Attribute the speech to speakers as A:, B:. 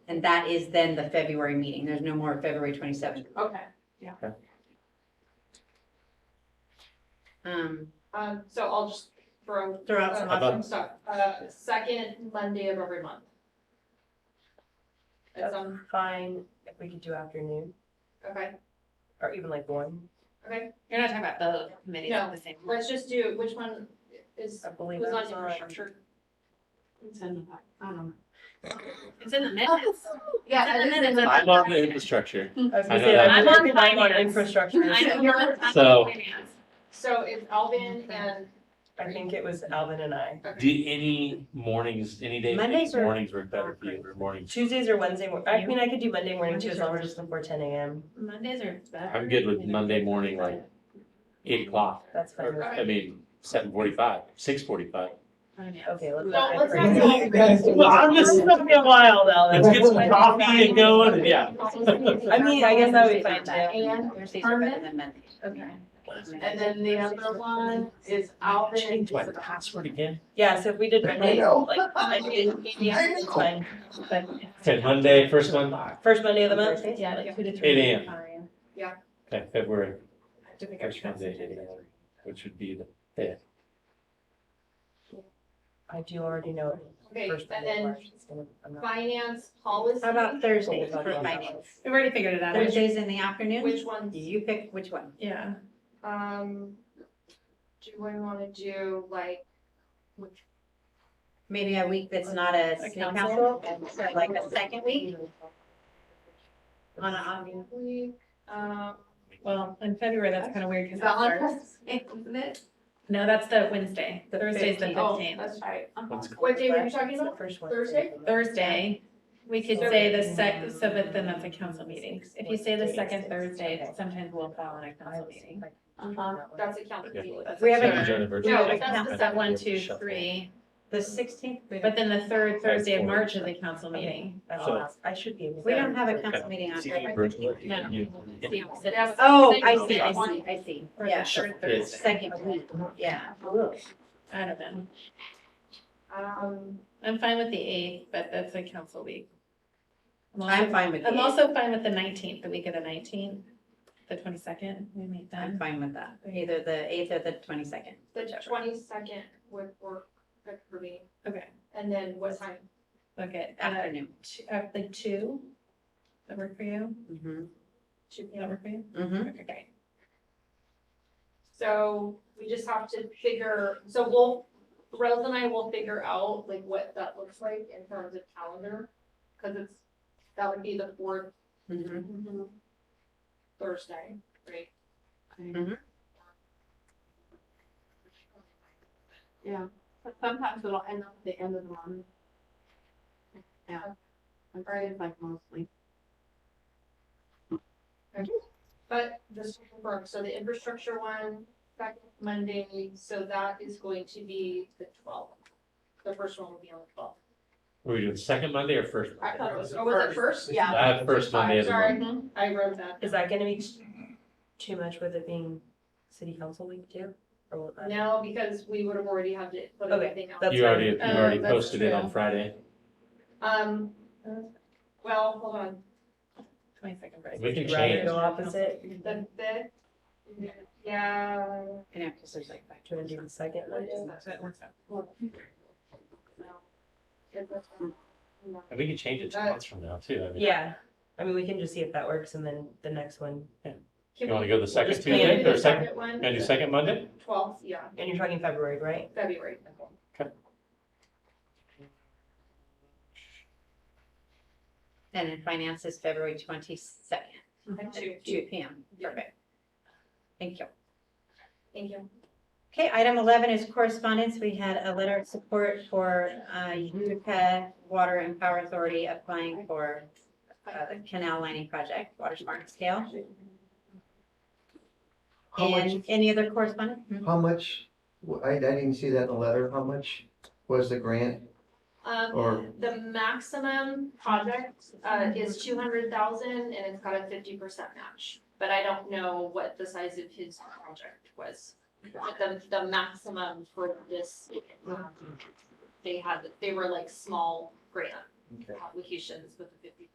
A: And that is then the February meeting. There's no more February 27th.
B: Okay,
A: Um,
B: um, so I'll just throw.
A: Throw out
B: uh,
A: some
C: options.
B: I'm sorry, uh, second Monday of every month. It's on,
D: Fine, if we could do afternoon,
B: okay,
D: or even like one,
B: okay,
E: You're not talking about the committee,
B: No.
E: the same.
B: let's just do, which one is,
D: I believe.
B: was
D: I
B: on
D: was on-
B: infrastructure?
E: It's in the, I don't know. Oh, It's in the minutes.
B: Yeah,
E: It's in
B: I
E: the
B: just-
E: minutes.
C: I'm on the infrastructure,
D: I was gonna
C: I know
D: say,
C: that.
D: I'm
E: I'm on
D: working on
E: finance.
D: infrastructure.
E: I know, I'm on
C: So-
E: finance.
B: So it's Alvin and,
D: I think it was Alvin and I.
C: do any mornings, any day, of the week,
A: Mondays are-
C: mornings work better for you, or mornings?
D: Tuesdays or Wednesday, mor- I mean, I could do Monday morning too, as
E: Mondays are
D: long as it's before ten AM,
E: Mondays are better.
C: I'm good with Monday morning, like eight o'clock,
D: that's fine.
C: or, I mean, seven forty-five, six forty-five.
D: Okay, let's.
B: Well,
D: not
B: let's
D: get
B: not
D: crazy.
B: go-
D: Well, I'm just, it's gonna be a while though.
C: Let's get some coffee and go, and yeah.
D: I mean, I guess that would be
A: Thursdays
D: fine
A: aren't bad.
D: too.
B: and,
A: Thursdays are better
B: Permit?
A: than Mondays.
B: okay, and then the other one is Alvin.
C: Change my password again.
D: Yeah, so if we did Monday,
F: know.
D: like, I mean, yeah, it's fine, but
C: Okay, Monday, first one,
D: first Monday of the month,
E: Yeah, like two to
C: three. 8 a.m..
E: a.m.
C: okay, February, first Monday, which would be the fifth.
D: I do already know.
B: Okay,
D: first
B: and
D: Monday of
B: then
D: March is gonna- I'm not-
B: finance policy.
A: How about Thursday for finance?
E: We've already figured it out.
A: Thursdays in the afternoon?
B: Which ones?
A: You pick which one.
E: Yeah.
B: Um, do we wanna do like,
A: Maybe a week that's not a
E: A
A: city
E: council?
A: council, and so like a second week? On a, on
B: week, um.
E: Well, in February, that's kind of weird because
B: isn't it?
E: No, that's the Wednesday.
D: The
E: Thursday's the
D: 15th.
B: Oh,
E: fifteenth.
B: that's right.
C: Let's go.
B: What day were you talking
D: It's the
B: about?
D: first
B: Thursday?
D: Wednesday.
E: Thursday, we could say the sec, so but then that's a council meeting. If you say the second Thursday, sometimes we'll fall on a council meeting. Um,
B: Uh-huh, that's a council
C: Yeah.
B: meeting.
E: That's
A: We have
E: a-
A: a-
E: Sure.
C: Agenda versus-
E: No,
A: Yeah.
E: that's the set one, two, three.
A: the sixteenth, we
E: But then the third Thursday of
C: Four.
E: March is a council meeting.
D: That's
C: So-
D: last. I should be. able to-
A: we don't have a council meeting on.
C: See you virtually.
E: No.
C: You-
B: Yes.
A: Oh, I see, I see, I see.
E: Or the
A: Yeah,
E: third
C: Yes.
E: Thursday.
A: second week, yeah.
E: I don't know.
B: Um,
E: I'm fine with the eighth, but that's a council week. I'm also-
A: I'm fine with
E: I'm
A: the,
E: also fine with the nineteenth, the week of the nineteenth, the twenty-second, we meet
A: I'm
E: then.
A: fine with that, either the eighth or the twenty-second.
B: the twenty-second would work good for me.
E: Okay.
B: And then what time?
E: Look at, uh,
A: Afternoon.
E: two, uh, like two, that work for you?
A: Mm-hmm.
E: Two, that work for you?
A: Mm-hmm.
E: Okay, great.
B: So we just have to figure, so we'll, Rose and I will figure out like what that looks like in terms of calendar. Cause it's, that would be the fourth
A: Mm-hmm.
B: Thursday, right?
G: But sometimes it'll end up at the end of the month. Yeah. I'm afraid it's like mostly.
B: But just to confirm, so the infrastructure one, back Monday, so that is going to be the twelfth. The first one will be on the twelfth.
C: Were we doing second Monday or first?
B: I thought it was, oh,
C: Monday?
B: was it first? Yeah.
C: I have first Monday of the
B: Sorry.
C: month.
G: Mm-hmm.
B: I wrote that.
D: Is that gonna be too much with it being city council week too? Or will that?
B: No, because we would have already had to put
D: Okay,
B: everything out.
D: that's
C: You
D: fine.
C: already, you
E: Uh,
C: already
E: that's
C: posted it on
E: true.
C: Friday.
B: Um, well, hold on,
E: Twenty-second, right?
C: We can
D: You'd Rather
C: change.
D: go opposite,
B: the fifth, yeah.
A: You know, because there's like five.
D: do you wanna do the second Monday?
E: That works out.
C: And we can change it two
B: Uh,
C: months from now too. I mean,
D: Yeah, I mean, we can just see if that works and then the next one,
C: You wanna go the second
D: plan
C: Tuesday
D: it.
C: or second,
B: One,
C: gonna do second Monday?
B: twelfth, yeah,
D: and you're talking February, right?
B: February.
A: And in finance is February twenty-second,
B: At two,
A: two P M. Perfect. Thank you.
B: thank you.
A: Okay, item eleven is correspondence. We had a letter of support for uh, Utica Water and Power Authority applying for uh, the canal lining project, water smart and scale.
F: How much,
A: And any other correspondence? Hmm?
F: how much, I, I didn't see that in the letter, how much was the grant
B: Um,
F: or,
B: the maximum project, uh, is two hundred thousand and it's got a fifty percent match. But I don't know what the size of his project was, but the, the maximum for this, um, they had, they were like small grant
F: Okay.
B: applications with the fifty